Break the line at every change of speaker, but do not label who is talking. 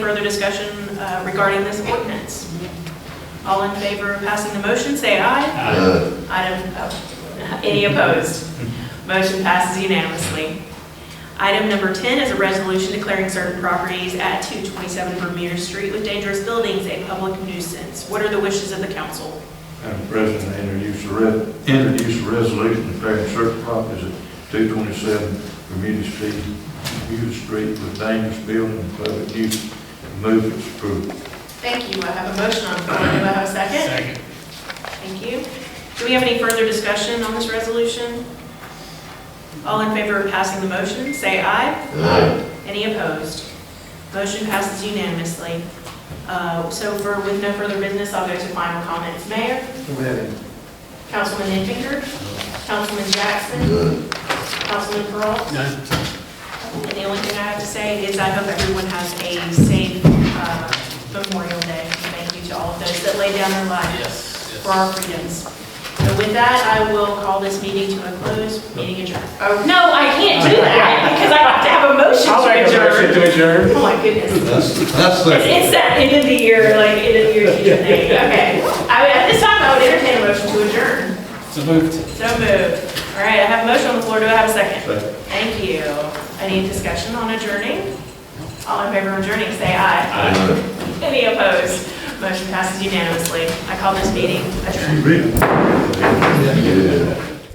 Further discussion uh, regarding this ordinance? All in favor of passing the motion, say aye.
Ah,
Uh,
Item, oh, any opposed? Motion passes unanimously. Item number 10 is a resolution declaring certain properties at 227 Vermeer Street with dangerous buildings a public nuisance. What are the wishes of the council?
Madam President, I introduce a re, introduce a resolution declaring certain properties at two twenty-seven Bermuda Street, Bermuda Street with dangerous building and public use, move its approval.
Thank you. I have a motion on the floor. Do I have a second?
Second.
Thank you. Do we have any further discussion on this resolution? All in favor of passing the motion, say aye.
Aye.
Any opposed? Motion passes unanimously. Uh, So for, with no further business, I'll go to final comments. Mayor? Councilman Infinger? Councilman Jackson?
uh,
Councilman Pearl? And the only thing I have to say is I hope everyone has a safe uh, Memorial Day. Thank you to all of those that laid down their lives
Yes,
for our freedoms. So with that, I will call this meeting to a close. Meeting adjourned. Oh, no, I can't do that because I have to have a motion to adjourn.
to adjourn.
Oh, my goodness.
That's, that's the.
It's it's that end of the year, like end of the year season thing, okay. I would, at this time, I would entertain a motion to adjourn.
So moved.
So moved. All right, I have a motion on the floor, do I have a second?
Second.
Thank you. Any discussion on adjourning? All in favor of adjourning, say aye.
Uh,
Any opposed? Motion passes unanimously. I call this meeting adjourned.
Really?
Yeah.